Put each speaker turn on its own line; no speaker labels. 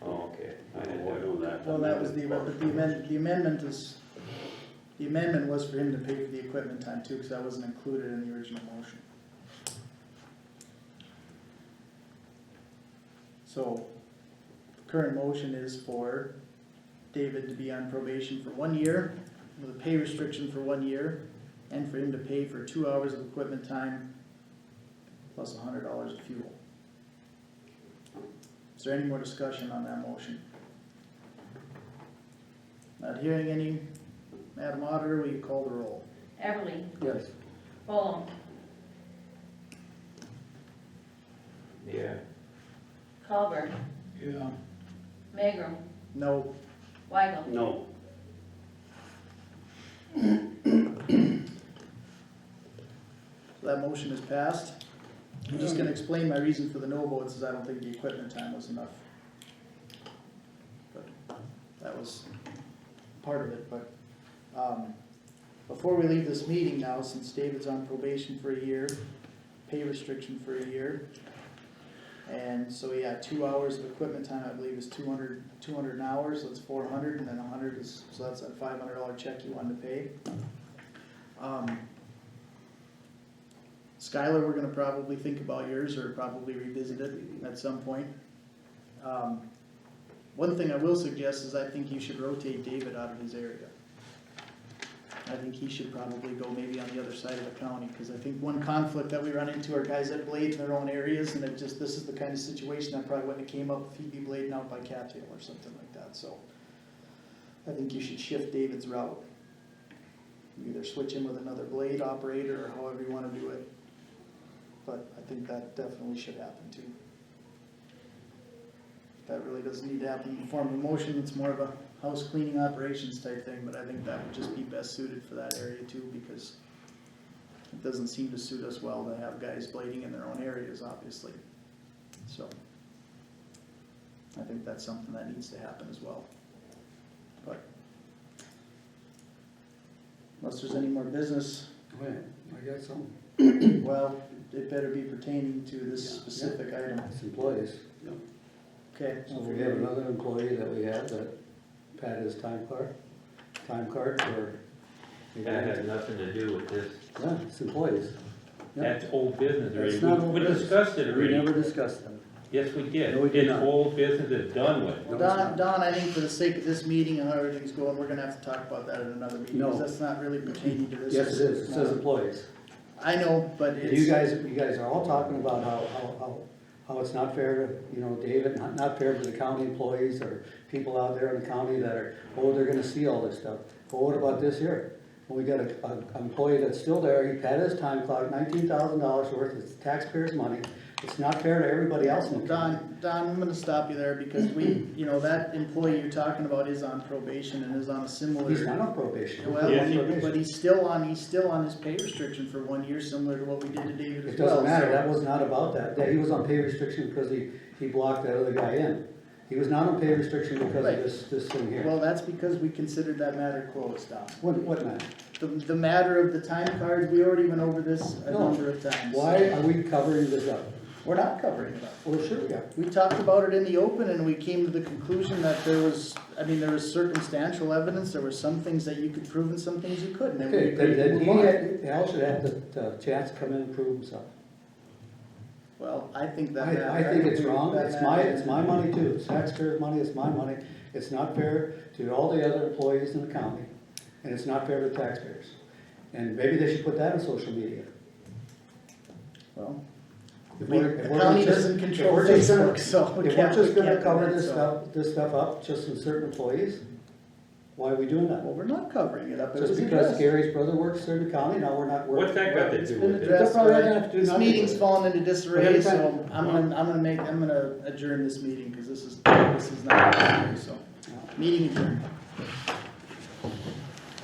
Oh,
well, that was the, amendment, but the amendment, the amendment is, the amendment was for him to pay for the equipment time too, cause that wasn't included in the original motion. So, the current motion is for David to be on probation for one year, with a pay restriction for one year, and for him to pay for two hours of equipment time plus hundred dollars of fuel. Is there any more discussion on that motion? Not hearing any. Madam Auditor, will you call the roll?
Everly,
Yes.
Holm,
Yeah.
Culver,
Yeah.
Magrum,
No,
Weigel.
No.
that motion is passed. I'm just gonna explain my reason for the no votes is I don't think the equipment time was enough. But That was part of it, but, um, before we leave this meeting now, since David's on probation for a year, pay restriction for a year. And so, yeah, two hours of equipment time, I believe, is 200 200 an hour, so it's four hundred, and then hundred is, so that's that five hundred dollar check you wanted to pay. Um, Skylar, we're gonna probably think about yours or probably revisit it at some point. Um, One thing I will suggest is I think you should rotate David out of his area. I think he should probably go maybe on the other side of the county, cause I think one conflict that we run into are guys that blade in their own areas and it just, this is the kind of situation that probably wouldn't have came up if he'd be blading out by cattail or something like that, so. I think you should shift David's route. Either switch him with another blade operator or however you wanna do it. But I think that definitely should happen too. That really doesn't need to happen in the form of a motion, it's more of a house cleaning operations type thing, but I think that would just be best suited for that area too, because it doesn't seem to suit us well to have guys blading in their own areas, obviously, so. I think that's something that needs to happen as well, but. Unless there's any more business,
Go ahead. I got some.
well, it better be pertaining to this specific item.
It's employees.
Okay,
So we have another employee that we have that Pat is time card, time card for.
That
Yeah,
has nothing to do with this,
it's employees. Yeah.
that's old business already,
That's not
We-
old
we
business.
discussed it
We
already,
never discussed them.
yes, we did,
No, we did
it's
not.
old business, it's done with.
No,
well,
it's
Don,
not.
Don, I think for the sake of this meeting and how everything's going, we're gonna have to talk about that at another meeting, because
No.
that's not really pertaining to this.
Yes, it is. It says employees.
I know, but
You
it's,
guys, you guys are all talking about how, how, how, how it's not fair to, you know, David, not, not fair to the county employees or people out there in the county that are, oh, they're gonna see all this stuff. Well, what about this here? Well, we got a, a employee that's still there, he had his time clock, nineteen thousand dollars worth, it's taxpayers' money. It's not fair to everybody else in the county.
Don, Don, I'm gonna stop you there, because we, you know, that employee you're talking about is on probation and is on a similar.
He's not on probation.
Well,
He's not on
he- but
probation.
he's still on, he's still on his pay restriction for one year, similar to what we did to David as
It
well.
doesn't matter,
so-
that was not about that, that, he was on pay restriction because he, he blocked that other guy in. He was not on pay restriction because of
Right.
this, this thing here.
Well, that's because we considered that matter closed, Don.
What, what matter?
The, the matter of the time cards, we already went over this a
No.
number of times.
Why are we covering this up?
We're not covering it up.
Well, sure we are.
We talked about it in the open and we came to the conclusion that there was, I mean, there was circumstantial evidence, there were some things that you could prove and some things you couldn't. and we
Okay,
agreed
then,
to move
then he
on.
had, Al should have the, the chance to come in and prove himself.
Well, I think that.
I, I
matter-
think it's
that
wrong,
matter-
it's my, it's my money too, it's taxpayers' money, it's my money. It's not fair to all the other employees in the county, and it's not fair to taxpayers. And maybe they should put that on social media.
Well,
If
we-
we're- if
the
we're
county
just-
doesn't
if
control
we're just gonna-
Facebook, so we
If
can't-
we're
we
just gonna
can't
cover
do
this
that, so-
stuff, this stuff up, just in certain employees, why are we doing that?
Well, we're not covering it up. It was
Just because
addressed.
Gary's brother works in the county, now we're not working.
What's that got to
It's
do
been
with it?
addressed,
They're probably
but
gonna have to do
this
nothing
meeting's
with it.
fallen into disarray,
Every
so
time-
I'm gonna, I'm gonna make, I'm gonna adjourn this meeting, cause this is, this is not, so, meeting adjourned.